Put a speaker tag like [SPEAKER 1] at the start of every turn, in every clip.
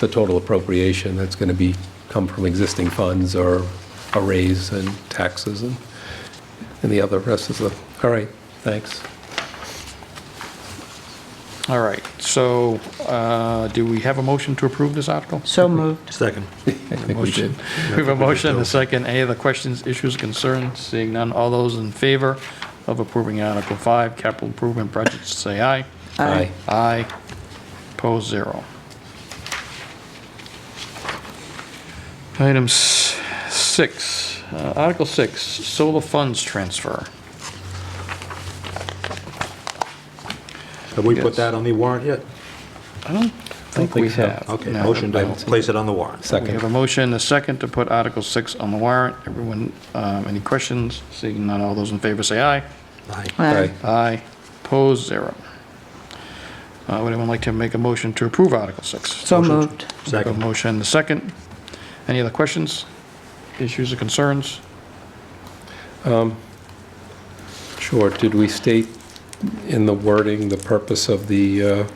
[SPEAKER 1] the total appropriation that's going to be, come from existing funds or a raise and taxes and, and the other rest is the, all right, thanks.
[SPEAKER 2] All right, so uh, do we have a motion to approve this article?
[SPEAKER 3] So moved.
[SPEAKER 4] Second.
[SPEAKER 1] I think we did.
[SPEAKER 2] We have a motion and a second. Any other questions, issues, concerns? Seeing none, all those in favor of approving Article 5, capital improvement budget, say aye.
[SPEAKER 1] Aye.
[SPEAKER 2] Aye. Opposed, zero. Item s- 6, uh, Article 6, solar funds transfer.
[SPEAKER 4] Have we
[SPEAKER 2] Yes.
[SPEAKER 4] put that on the warrant yet?
[SPEAKER 2] I don't think we
[SPEAKER 1] think so.
[SPEAKER 2] have.
[SPEAKER 4] Okay,
[SPEAKER 2] No,
[SPEAKER 4] motion
[SPEAKER 2] I
[SPEAKER 4] to
[SPEAKER 2] don't think
[SPEAKER 4] place it on the warrant.
[SPEAKER 2] We have
[SPEAKER 1] Second.
[SPEAKER 2] a motion, and a second, to put Article 6 on the warrant. Everyone, um, any questions? Seeing none, all those in favor say aye.
[SPEAKER 4] Aye.
[SPEAKER 3] Aye.
[SPEAKER 2] Aye. Opposed, zero. Uh, Would anyone like to make a motion to approve Article 6?
[SPEAKER 3] So
[SPEAKER 4] Motion to-
[SPEAKER 3] moved.
[SPEAKER 2] A
[SPEAKER 4] Second.
[SPEAKER 2] motion, and a second. Any other questions, issues, or concerns?
[SPEAKER 1] Sure, did we state in the wording the purpose of the uh,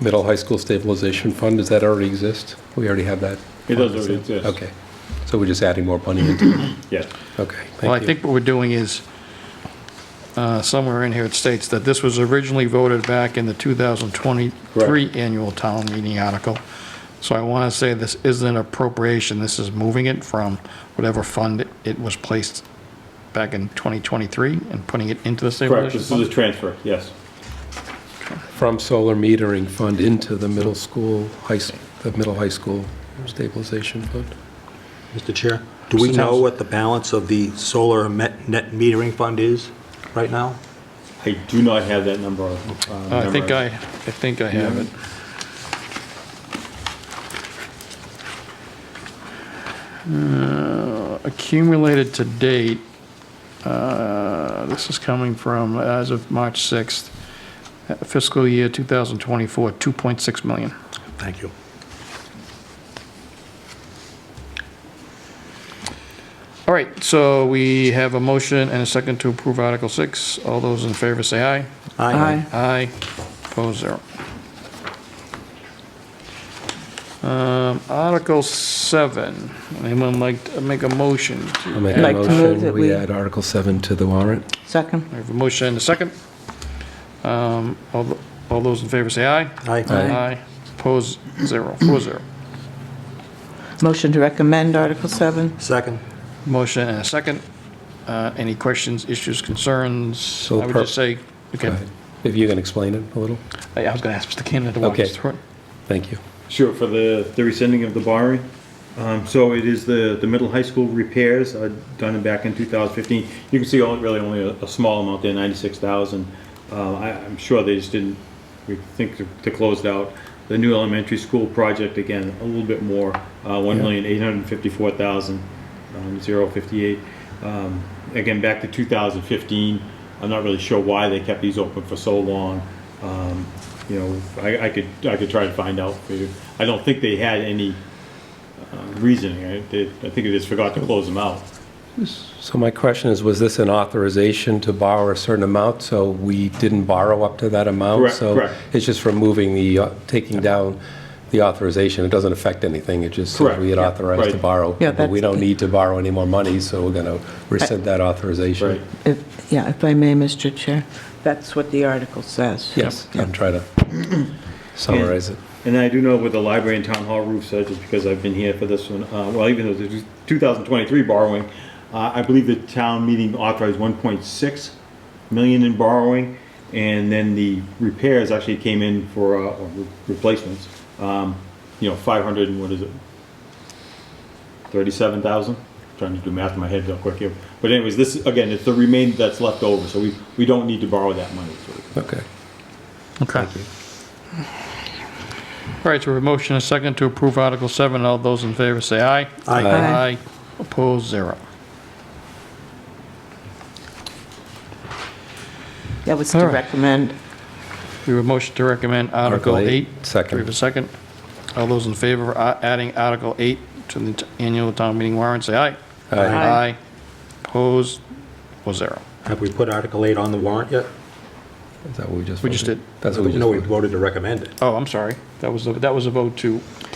[SPEAKER 1] middle high school stabilization fund? Does that already exist? We already have that?
[SPEAKER 5] It does already exist.
[SPEAKER 1] Okay, so we're just adding more money into it?
[SPEAKER 5] Yes.
[SPEAKER 1] Okay, thank you.
[SPEAKER 2] Well, I think what we're doing is, uh, somewhere in here it states that this was originally voted back in the 2023 annual town meeting article. So I want to say this isn't an appropriation, this is moving it from whatever fund it was placed back in 2023 and putting it into the
[SPEAKER 5] Correct,
[SPEAKER 2] stabilization
[SPEAKER 5] this is a
[SPEAKER 2] fund.
[SPEAKER 5] transfer, yes.
[SPEAKER 1] From solar metering fund into the middle school, high, s- the middle high school stabilization fund?
[SPEAKER 4] Mr. Chair, do we
[SPEAKER 2] Mr.
[SPEAKER 4] know
[SPEAKER 2] Towns.
[SPEAKER 4] what the balance of the solar met- net metering fund is right now?
[SPEAKER 5] I do not have that number. uh,
[SPEAKER 2] I think I, I
[SPEAKER 5] memorized.
[SPEAKER 2] think I have it. Uh, Accumulated to date, uh, this is coming from, as of March 6th, uh, fiscal year 2024, 2.6 million.
[SPEAKER 4] Thank you.
[SPEAKER 2] All right, so we have a motion and a second to approve Article 6. All those in favor say aye.
[SPEAKER 3] Aye.
[SPEAKER 2] Aye, opposed, zero. Um, Article 7, anyone like to make a motion? to-
[SPEAKER 1] I'll make a
[SPEAKER 3] Like to move
[SPEAKER 1] motion,
[SPEAKER 3] that
[SPEAKER 1] we
[SPEAKER 3] we-
[SPEAKER 1] add Article 7 to the warrant.
[SPEAKER 3] Second.
[SPEAKER 2] I have a motion and a second. Um, All th- all those in favor say aye.
[SPEAKER 4] Aye.
[SPEAKER 2] Opposed, zero, four zero.
[SPEAKER 3] Motion to recommend Article 7.
[SPEAKER 4] Second.
[SPEAKER 2] Motion and a second. Uh, Any questions, issues, concerns? I
[SPEAKER 1] So
[SPEAKER 2] would
[SPEAKER 1] per-
[SPEAKER 2] just say,
[SPEAKER 1] Go
[SPEAKER 2] okay,
[SPEAKER 1] ahead. Uh, If you can explain it a little?
[SPEAKER 2] I I was going to ask Mr. Cannon to walk
[SPEAKER 1] Okay.
[SPEAKER 2] us through it.
[SPEAKER 1] Thank you.
[SPEAKER 5] Sure, for the, the rescinding of the borrowing. Um, so it is the, the middle high school repairs, uh, done back in two thousand fifteen. You can see only, really only a, a small amount there, ninety-six thousand. Uh, I, I'm sure they just didn't, we think to, to close it out. The new elementary school project, again, a little bit more, uh, one million, eight hundred and fifty-four thousand, um, zero fifty-eight. Um, again, back to two thousand fifteen. I'm not really sure why they kept these open for so long. Um, you know, I, I could, I could try to find out for you. I don't think they had any uh, reasoning. I, they- I think they just forgot to close them out.
[SPEAKER 1] So my question is, was this an authorization to borrow a certain amount, so we didn't borrow up to that amount?
[SPEAKER 5] Correct, correct.
[SPEAKER 1] So it's just removing the, uh, taking down the authorization, it doesn't affect anything, it just says
[SPEAKER 5] Correct,
[SPEAKER 1] we had
[SPEAKER 5] yeah,
[SPEAKER 1] authorized to
[SPEAKER 5] right.
[SPEAKER 1] borrow.
[SPEAKER 3] Yeah,
[SPEAKER 1] But we
[SPEAKER 3] that's-
[SPEAKER 1] don't need to borrow any more money, so we're going to rescind that authorization.
[SPEAKER 5] Right.
[SPEAKER 3] If, yeah, if I may, Mr. Chair, that's what the article says.
[SPEAKER 1] Yes, I'm trying to summarize it.
[SPEAKER 5] And I do know with the library and town hall roofs, uh, just because I've been here for this one, uh, well, even though the 2023 borrowing, uh, I believe the town meeting authorized 1.6 million in borrowing, and then the repairs actually came in for, uh, or re- replacements, um, you know, 500 and what is it? 37,000? Trying to do math in my head real quick here. But anyways, this, again, it's the remainder that's left over, so we, we don't need to borrow that money. so-
[SPEAKER 1] Okay.
[SPEAKER 2] Okay. All right, so we have a motion and a second to approve Article 7. All those in favor say aye.
[SPEAKER 4] Aye.
[SPEAKER 3] Aye.
[SPEAKER 2] Opposed, zero.
[SPEAKER 3] That was to
[SPEAKER 2] All right.
[SPEAKER 3] recommend.
[SPEAKER 2] We have a motion to recommend Article
[SPEAKER 1] Article
[SPEAKER 2] 8.
[SPEAKER 1] eight, second.
[SPEAKER 2] We have a second. All those in favor of a- adding Article 8 to the t- annual town meeting warrant, say aye.
[SPEAKER 1] Aye.
[SPEAKER 3] Aye.
[SPEAKER 2] Aye. Opposed, was zero.
[SPEAKER 4] Have we put Article 8 on the warrant yet?
[SPEAKER 1] Is that what we just
[SPEAKER 2] We just
[SPEAKER 1] voted?
[SPEAKER 2] did.
[SPEAKER 1] That's what we just
[SPEAKER 4] No, we
[SPEAKER 1] voted.
[SPEAKER 4] voted to recommend it.
[SPEAKER 2] Oh, I'm sorry. That was, a- that was a vote to